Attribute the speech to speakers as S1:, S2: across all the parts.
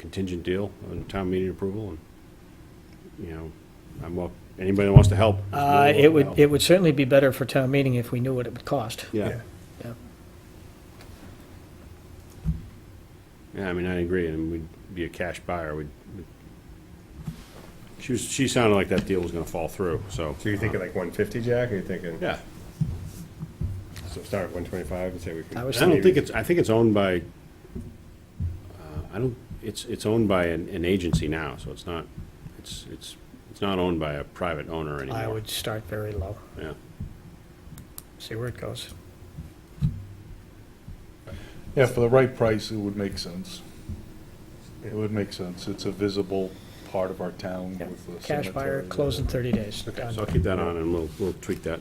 S1: contingent deal on town meeting approval, and, you know, I'm up, anybody that wants to help. is more
S2: Uh,
S1: than
S2: It
S1: welcome
S2: would,
S1: to
S2: it would certainly be better for town meeting if we knew what it would cost.
S1: help. Yeah,
S2: Yeah.
S1: yeah, I mean, I agree, and we'd be a cash buyer, we'd, we'd- she was, she sounded like that deal was gonna fall through, so.
S3: So you're thinking like one fifty, Jack, or you're thinking?
S1: Yeah,
S3: So start at one twenty-five and say we can.
S2: I
S1: I
S2: was
S1: don't think it's, I think it's owned by, uh, I don't, it's, it's owned by an, an agency now, so it's not, it's, it's, it's not owned by a private owner anymore.
S2: I would start very low,
S1: Yeah.
S2: see where it goes.
S4: Yeah, for the right price, it would make sense. It would make sense. It's a visible part of our town
S2: Yeah.
S4: with the
S2: Cash buyer,
S4: cemetery.
S2: close in 30 days. Done.
S1: So I'll keep that on and we'll, we'll tweak that.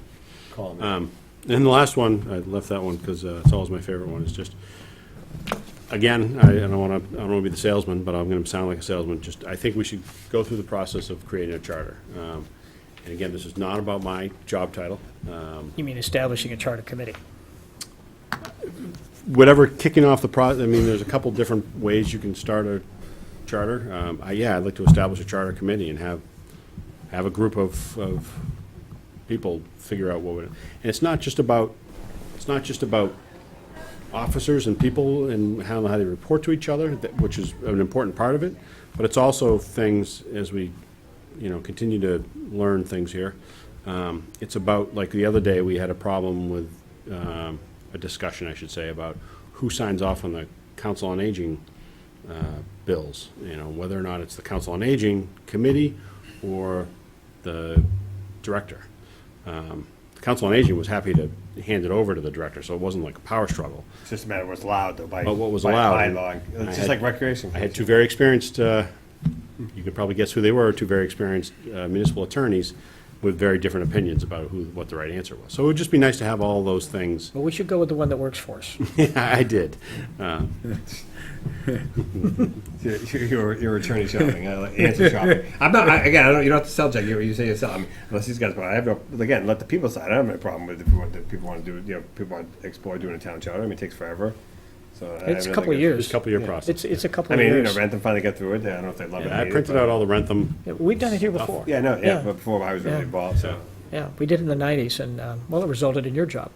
S3: Call me.
S1: Um, And the last one, I left that one because it's always my favorite one, It's just, again, I I don't want to, I don't want to be the salesman, but I'm going to sound like a salesman, just, I think we should go through the process of creating a charter. Um, And again, this is not about my job title. Um,
S2: You mean establishing a charter committee?
S1: whatever kicking off the pro, I mean, there's a couple different ways you can start a charter. Um, I, yeah, I'd like to establish a charter committee and have, have a group of, of people figure out what would, and it's not just about, it's not just about officers and people and how, how they report to each other, that, which is an important part of it, but it's also things as we, you know, continue to learn things here. Um, it's about, like the other day, we had a problem with, um, a discussion, I should say, about who signs off on the Council on Aging, uh, bills, you know, whether or not it's the Council on Aging Committee or the director. Um, the Council on Aging was happy to hand it over to the director, so it wasn't like a power struggle.
S3: It's just a matter of what's allowed though by.
S1: But what was
S3: by
S1: allowed,
S3: bylaw.
S1: I
S3: It's
S1: had-
S3: just like recreation.
S1: I had two very experienced, uh, you could probably guess who they were, two very experienced uh, municipal attorneys with very different opinions about who, what the right answer was. So it would just be nice to have all those things.
S2: Well, we should go with the one that works for us.
S1: I did. Uh,
S3: Your, your- your attorney shopping, uh, like, answer shopping. I'm not, I- again, I don't, you don't have to sell Jack, you, you say yourself, I mean, unless these guys, but I have no, again, let the people decide. I don't have any problem with if you want, if people want to do, you know, people want to explore doing a town charter, I mean, it takes forever. So. I
S2: It's
S3: have
S2: a
S3: nothing
S2: couple of
S3: against-
S1: It's
S2: years.
S1: a couple-year process.
S2: It's, it's a couple
S3: I
S2: of
S3: mean, you know,
S2: years.
S3: Rantham finally got through it, I don't know if they love it.
S1: I
S3: hate it,
S1: printed
S3: but-
S1: out all the Rentham
S2: Yeah, We've done it here before.
S3: Yeah, no,
S2: Yeah.
S3: yeah, but before I was
S2: Yeah.
S3: really involved, so.
S2: Yeah, we did in the 90s, and, um, well, it resulted in your job,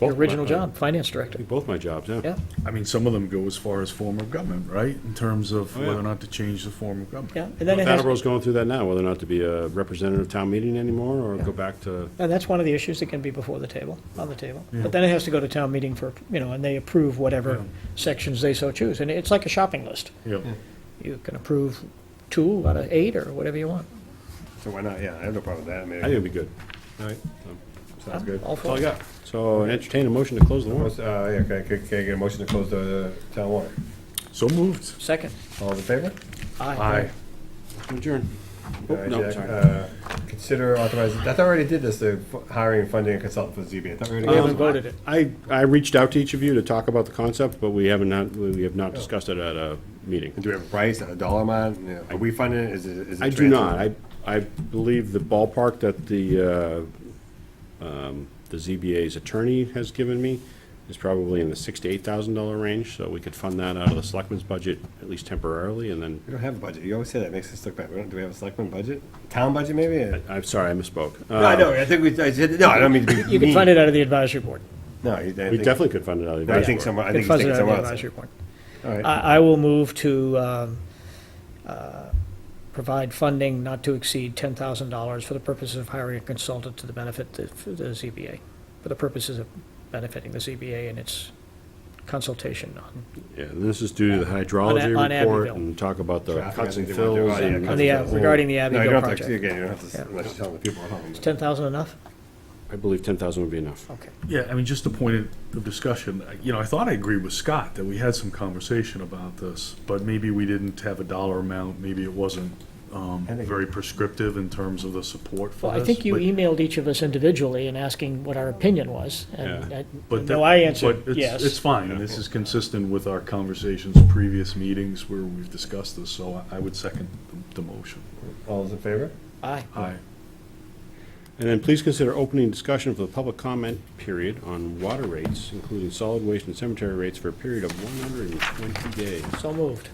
S2: your
S1: Both
S2: original
S1: my-
S2: job, finance director.
S1: Both my jobs, yeah.
S2: Yeah,
S4: I mean, some of them go as far as form of government, right? In terms of
S1: Oh, yeah.
S4: whether or not to change the form of government.
S2: yeah. And then it has,
S1: Attleboro's going through that now, whether or not to be a representative town meeting anymore, or go back to,
S2: and that's one of the issues that can be before the table, on the table. But then it has to go to town meeting for, you know, and they approve whatever sections they so choose. And it's like a shopping list.
S4: Yep.
S2: You can approve two out of eight or whatever you want.
S3: So why not? Yeah, I have no problem with that. I mean,
S1: I think it'd be good.
S3: all right, sounds good.
S2: All
S1: That's all
S2: for
S1: I
S2: it.
S1: got. So entertain a motion to close the warrant.
S3: What's- Uh, yeah, can I, can I get a motion to close the town warrant?
S4: So moved.
S2: Second.
S3: All in favor?
S2: Aye.
S1: Adjourn.
S3: All right,
S1: Oh, no,
S3: Jack,
S1: sorry.
S3: uh, Consider authorizing, I thought I already did this, the f- hiring and funding a consultant for ZBA. I thought we already
S2: We
S3: did
S2: haven't
S3: this.
S2: voted it.
S1: Um, I, I reached out to each of you to talk about the concept, but we haven't, not- we have not discussed it at a meeting.
S3: And do we have a price, a dollar amount? You know, Are we funding it? Is it? is it
S1: I do not.
S3: transferred?
S1: I, I believe the ballpark that the, uh, um, the ZBA's attorney has given me is probably in the six to eight thousand dollar range, so we could fund that out of the selectmen's budget, at least temporarily, and then
S3: We don't have a budget. You always say that. Makes us look bad. We don't, do we have a selectman budget? Town budget maybe?
S2: Uh,
S3: No,
S1: I'm sorry, I misspoke. Uh,
S3: I know. I think we, I said, no, I don't mean to be
S2: You can
S3: mean.
S2: find it out of the advisory board.
S3: No, you- I
S1: We
S3: think-
S1: definitely could fund it out of the
S3: I
S1: advisory
S3: think
S1: board.
S3: somewhere, I
S2: You
S3: think
S2: can
S3: it's
S2: fund it
S3: taken
S2: out of the
S3: somewhere else.
S2: advisory board.
S3: All right.
S2: I, I will move to um, uh, provide funding not to exceed $10,000 for the purposes of hiring a consultant to the benefit the for the ZBA, for the purposes of benefiting the ZBA and its consultation on,
S1: Yeah, and this is due to the hydrology
S2: on
S1: report
S2: Abbeville.
S1: and talk about the
S3: Traffic, I
S1: cuts and
S3: think they want to do.
S1: fills
S3: Oh, yeah,
S1: and
S3: cuts
S2: on the, uh,
S3: fills.
S2: regarding the
S3: No, you
S2: Abbeville
S3: don't have to,
S2: project.
S3: again, you don't have to,
S2: Yeah.
S3: s- unless you tell the people at home. but-
S2: 10,000 enough?
S1: I believe ten thousand would be enough.
S2: Okay.
S4: Yeah, I mean, just a point of discussion, you know, I thought I agreed with Scott that we had some conversation about this, but maybe we didn't have a dollar amount, maybe it wasn't um,
S3: I think-
S4: very prescriptive in terms of the support for
S2: Well,
S4: this.
S2: I think you
S4: but-
S2: emailed each of us individually and asking what our opinion was, and
S1: Yeah.
S2: I-
S4: but
S2: no,
S4: that-
S2: I answered
S4: but it's-
S2: yes.
S4: It's fine, this is consistent with our conversations, previous meetings where we've discussed this, so I I would second the- the motion.
S3: All those in favor?
S2: Aye.
S4: Aye.
S1: And then please consider opening discussion for the public comment period on water rates, including solid waste and cemetery rates for a period of one hundred and twenty days.
S2: So moved.